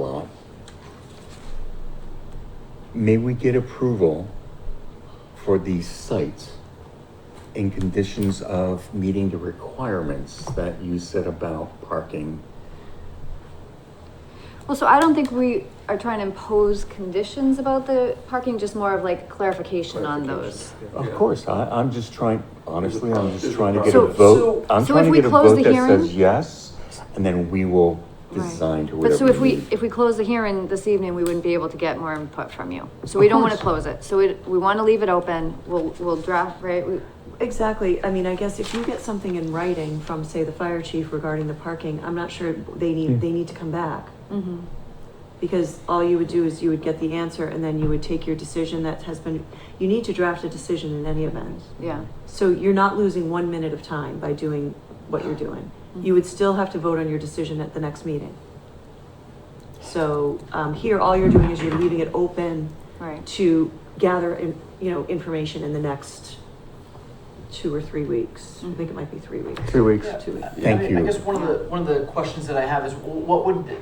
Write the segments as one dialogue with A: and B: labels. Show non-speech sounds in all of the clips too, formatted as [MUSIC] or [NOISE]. A: Well, may we get approval for these sites in conditions of meeting the requirements that you said about parking?
B: Well, so I don't think we are trying to impose conditions about the parking, just more of like clarification on those.
A: Of
C: Yeah.
A: course, I, I'm just trying, honestly, I'm
C: There's
A: just
C: a
A: trying to get a
B: process.
A: vote.
B: So-
A: I'm
B: so
A: trying
B: if
A: to
B: we
A: get a
B: close
A: vote
B: the
A: that says
B: hearing-
A: yes, and then we will
B: Right.
A: design to
B: But
A: whatever.
B: so if we,
A: need.
B: if we close the hearing this evening, we wouldn't be able to get more input from you. So we don't want to close it. So we, we want to leave it open. We'll, we'll draft, right? We-
D: Exactly, I mean, I guess if you get something in writing from, say, the fire chief regarding the parking, I'm not sure they
A: Yeah.
D: need, they need to come back.
B: mhm.
D: Because all you would do is you would get the answer and then you would take your decision that has been, you need to draft a decision in any event.
B: Yeah,
D: So you're not losing one minute of time by doing what you're doing. You would still have to vote on your decision at the next meeting. So, um, here, all you're doing is you're leaving it open
B: right.
D: to gather, in- you know, information in the next two or three weeks. I think it might be three weeks.
A: Three weeks.
D: Two weeks.
E: Yeah,
A: Thank
E: I-
A: you.
E: I guess one of the, one of the questions that I have is, wh- what would, the-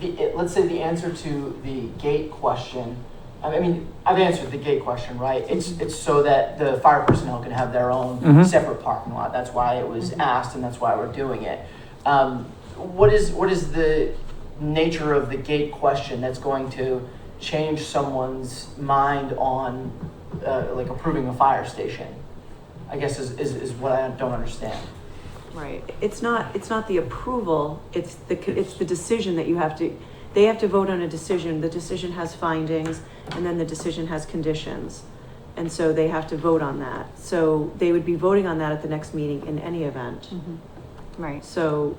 E: the, let's say the answer to the gate question, I mean, I've answered the gate question, right? It's, it's so that the fire personnel can have their own
A: Mhm.
E: separate parking lot, that's why it was
A: Mm-hmm.
E: asked, and that's why we're doing it. Um, what is, what is the nature of the gate question that's going to change someone's mind on, uh, like approving a fire station? I guess is, is, is what I don't understand.
B: Right.
D: It's not, it's not the approval, it's the, co- it's the decision that you have to, they have to vote on a decision. The decision has findings and then the decision has conditions. And so they have to vote on that. So they would be voting on that at the next meeting in any event.
B: Mhm. Right.
D: So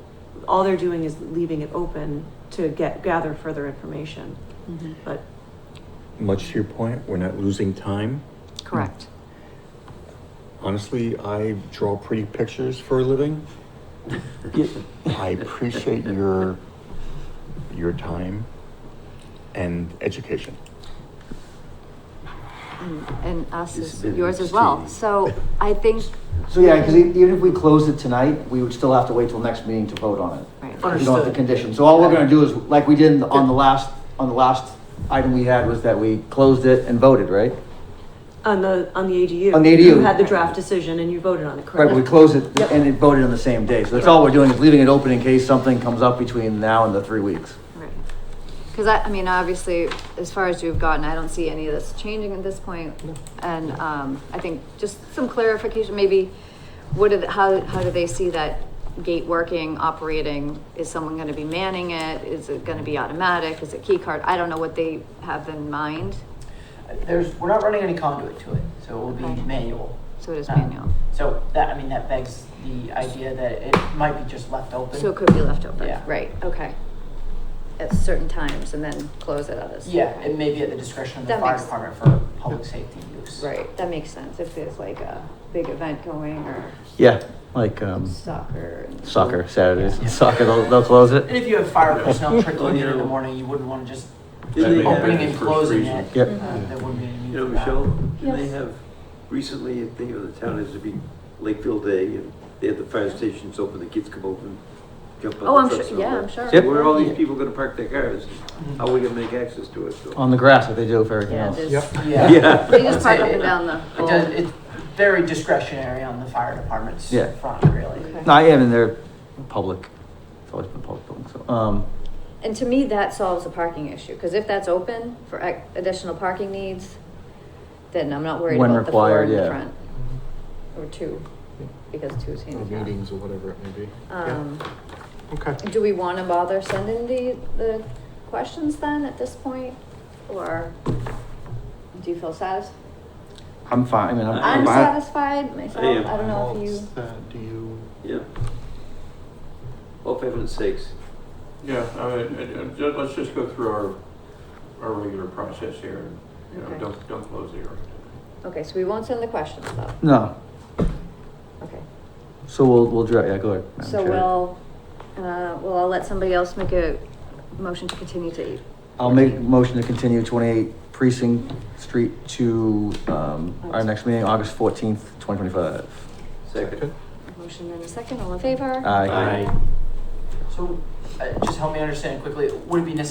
D: all they're doing is leaving it open to get, gather further information,
B: Mhm.
D: but.
A: Much to your point, we're not losing time.
B: Correct.
A: Honestly, I draw pretty pictures for a living. I appreciate your your time and education.
B: And- And us, is
F: It's been
B: yours as well.
F: interesting.
B: So I think,
F: So yeah, because even if we closed it tonight, we would still have to wait till next meeting to vote on it.
B: right.
F: You know, the
E: Understood.
F: condition. So all we're gonna do is, like we did on the last, on the last item we had was that we closed it and voted, right?
D: On the, on the ADU.
F: On the ADU.
D: You had the draft decision and you voted on it,
F: Right,
D: correct?
F: but we closed it and it voted on the same day. So that's all we're doing is leaving it open in case something comes up between now and the three weeks.
B: Right. Because I, I mean, obviously, as far as you've gotten, I don't see any of this changing at this point. And, um, I think just some clarification, maybe, what did, how, how do they see that gate working, operating? Is someone gonna be manning it? Is it gonna be automatic? Is it key card? I don't know what they have in mind,
E: There's, we're not running any conduit to it, so it will
B: Okay.
E: be manual.
B: so it is
E: Um,
B: manual.
E: So that, I mean, that begs the idea that it might be just left open.
B: So it could be left open,
E: Yeah.
B: right, okay. At certain times and then close at others.
E: Yeah, it may be at the discretion of the
B: That
E: fire
B: makes-
E: department for public safety use.
B: Right, that makes sense, if there's like a big event going or
F: Yeah, like, um,
B: soccer. and-
F: soccer, Saturdays, soccer, they'll, they'll close
E: And
F: it.
E: if you have fire personnel trickling in in the
G: Yeah.
E: morning, you wouldn't want to just
G: Didn't they have
E: opening
G: it
E: and
G: for
E: closing
G: freezing?
E: it.
F: Yep.
B: Mm-hmm.
E: Uh, There wouldn't be any need
G: You know,
E: for that.
G: Michelle, didn't they
B: Yes.
G: have, recently, I think it was the town, it was a big Lakeville Day, and they had the fire stations open, the kids come open, jump on
B: Oh, I'm
G: the trucks
B: sure-
G: and all
B: yeah,
G: that.
B: I'm sure.
G: So Where are all these people gonna park their cars?
E: Mhm.
G: How are we gonna make access to it? So-
F: On the grass that they do for everything
B: Yeah,
F: else.
B: there's,
A: Yep.
E: Yeah.
B: they just park up and down the
E: [LAUGHS] It does,
B: whole.
E: it's very discretionary on the fire department's
F: Yeah.
E: front, really.
B: Okay.
F: No, I am in there, public. It's always been public, so, um,
B: And to me, that solves the parking issue, because if that's open for ac- additional parking needs, then I'm not worried
F: When
B: about the four
F: required,
B: in the
F: yeah.
B: front. Or two, because two is
C: Or
B: handicap.
C: meetings or whatever it may be.
B: Um,
C: Yeah. Okay.
B: do we want to bother sending the, the questions then at this point? Or do you feel satisfied?
F: I'm fine, I mean, I'm.
B: I'm
F: fine.
B: satisfied myself,
G: am.
B: I don't know if
C: What's
B: you.
C: that? Do you?
G: Yeah. All favor and six.
H: Yeah, I mean, it- it- ju- let's just go through our, our regular process here, and, you know,
B: Okay.
H: don't, don't close the hearing.
B: Okay, so we won't send the questions though,
F: No,
B: okay.
F: so we'll, we'll draft, yeah, go ahead. Madam
B: So
F: Chair.
B: we'll, uh, well, I'll let somebody else make a motion to continue to eat.
F: I'll make a motion to continue twenty-eight precinct street to, um, our next meeting, August fourteenth, twenty twenty-five.
G: Second.
B: Motion in a second, all in favor?
F: Aye.
E: So uh, just help me understand quickly, would it be necessary